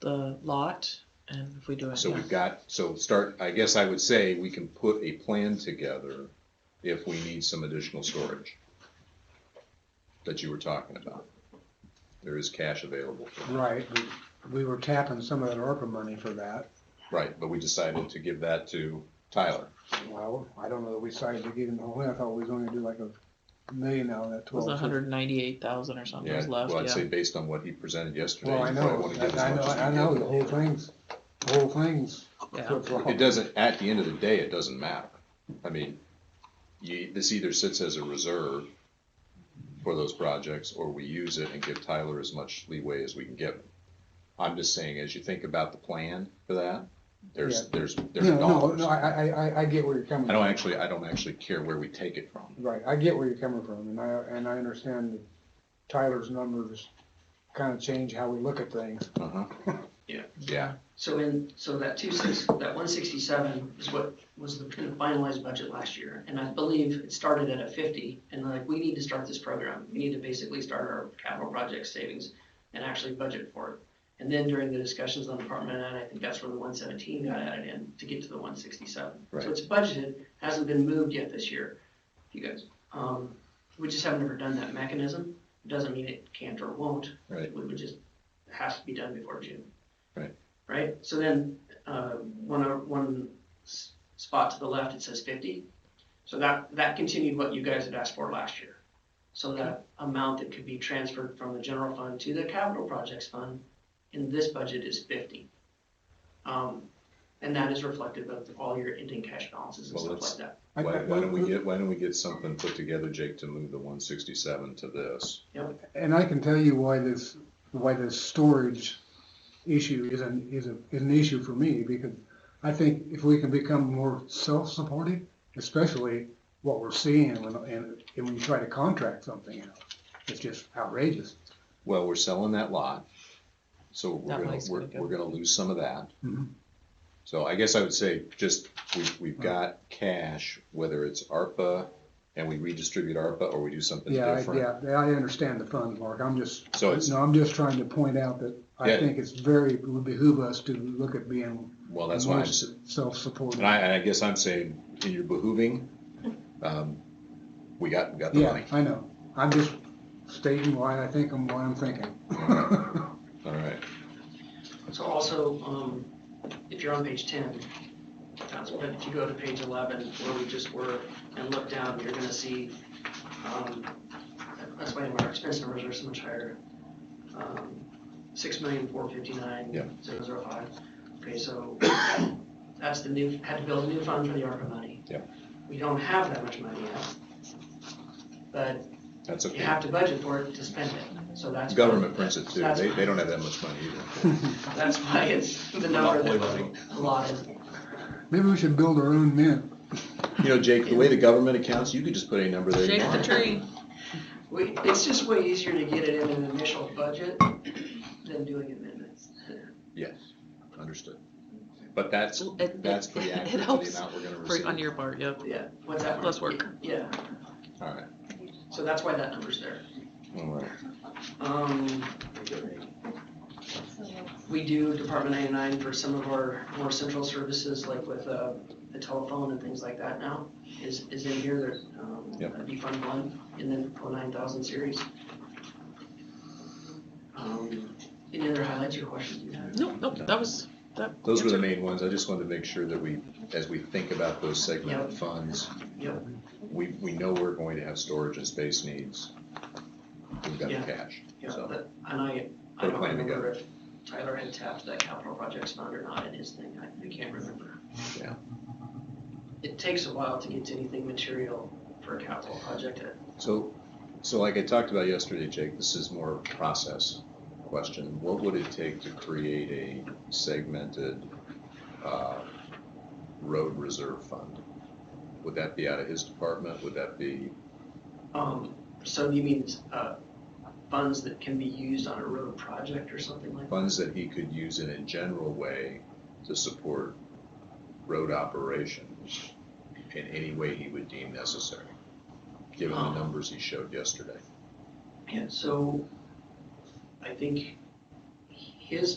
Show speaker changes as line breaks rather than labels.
the lot, and if we do it.
So
yeah.
we've got, so start, I guess I would say we can put a plan together if we need some additional storage that you were talking about. There is cash available. for that.
Right, we, we were tapping some of that ARPA money for that.
Right, but we decided to give that to Tyler.
Well, I don't know that we decided to give him the whole, thing. I thought we was only gonna do like a million out of that
It was
twelve.
hundred and ninety-eight thousand or something
Yeah,
was left,
well, I'd say
yeah.
based on what he presented yesterday.
Well, I
you probably
know,
wanna give as
I know,
much as you
I know,
can.
the whole thing's, the whole thing's.
Yeah.
It doesn't, at the end of the day, it doesn't matter. I mean, you, this either sits as a reserve for those projects, or we use it and give Tyler as much leeway as we can give him. I'm just saying, as you think about the plan for that, there's,
Yeah.
there's, there's
No, no,
dollars.
no, I,
I
I, I, I get where you're coming.
don't
from.
actually, I don't actually care where we take it from.
Right, I get where you're coming from, and I, and I understand that Tyler's numbers kinda change how we look at things.
Uh-huh.
Yeah.
Yeah,
So in, so that two six, that one sixty-seven is what was the finalized budget last year, and I believe it started at a fifty, and like, we need to start this program, we need to basically start our capital project savings and actually budget for it. And then during the discussions on department nine, I think that's where the one seventeen got added in to get to the one sixty-seven.
Right.
So it's budgeted, hasn't been moved yet this year, you guys, um, we just have never done that mechanism, doesn't mean it can't or won't.
Right.
We would just, it has to be done before June right? So then, uh, one, o- one s- spot to the left, it says fifty. So that, that continued what you guys had asked for last year. So that amount that could be transferred from the general fund to the capital projects fund in this budget is fifty. Um, and that is reflective of all your ending cash balances and
Well,
stuff
let's-
like that.
I-
why,
I-
why don't we get, why don't we get something put together, Jake, to move the one sixty-seven to this?
And I can tell you why this, why this storage issue is an, is a, is an issue for me, because I think if we can become more self-supporting, especially what we're seeing when, and, and when you try to contract something out, it's just outrageous.
Well, we're selling that lot, so we're
That
gonna,
money's
we're,
gonna go.
we're gonna lose some of that.
Mhm.
So I guess I would say, just, we've, we've got cash, whether it's ARPA, and we redistribute ARPA, or we do something
Yeah, I-
different.
yeah, I understand the funds, Mark, I'm just,
So it's-
no, I'm just trying to point out that I
Yeah.
think it's very, it would behoove us to look at being
Well, that's why,
more
I'm s-
self-supporting.
and I, and I guess I'm saying, in your behooving, um, we got, we got the
Yeah,
money.
I know, I'm just stating why I think I'm, why I'm thinking.
All right,
So also, um, if you're on page ten, that's, but if you go to page eleven, where we just were, and look down, you're gonna see, um, that's why our expense numbers are so much higher. Um, Six million, four
Yeah.
fifty-nine, zero zero five. Okay, so that's the new, had to build a new fund for the ARPA money.
Yeah.
We don't have that much money yet, but
that's
you
okay.
have to budget for it to spend it, so that's.
Government prints it too,
That's-
they, they don't have that much money either.
That's why it's the number
Monopoly
that's allotted.
Maybe we should build our own mint.
You know, Jake, the way the government accounts, you could just put any number there you
Shake the
want.
tree.
We, it's just way easier to get it in an initial budget than doing amendments.
Yes, understood. But that's,
It-
that's
it-
pretty
it
accurate for
helps
the amount we're gonna
For, on
receive.
your part, yep.
Yeah, what's that?
Less work.
Yeah,
All right,
so that's why that number's there.
all right.
Um, we do Department ninety-nine for some of our more central services, like with, uh, the telephone and things like that now, is, is in here, there, um,
Yep.
that'd be Fund One, and then for nine thousand series. Um, any other highlights or questions you have?
Nope, nope, that was, that.
Those were the
answered-
main ones. I just wanted to make sure that we, as we think about those segmented
Yep.
funds,
Yep,
we, we know we're going to have storage and space needs. We've got the
Yeah.
cash,
yeah,
so.
but, and I, I
Put a
don't
plan
remember if Tyler had tapped that capital projects fund or not in his thing, I, I can't remember.
Yeah.
It takes a while to get to anything material for a capital project, uh,
So, so like I talked about yesterday, Jake, this is more process question. What would it take to create a segmented, uh, road reserve fund? Would that be out of his department? Would that be,
Um, so you mean, uh, funds that can be used on a road project or something like that?
funds that he could use in a general way to support road operations in any way he would deem necessary, given the
Um.
numbers he showed Oh. yesterday.
Yeah, so I think his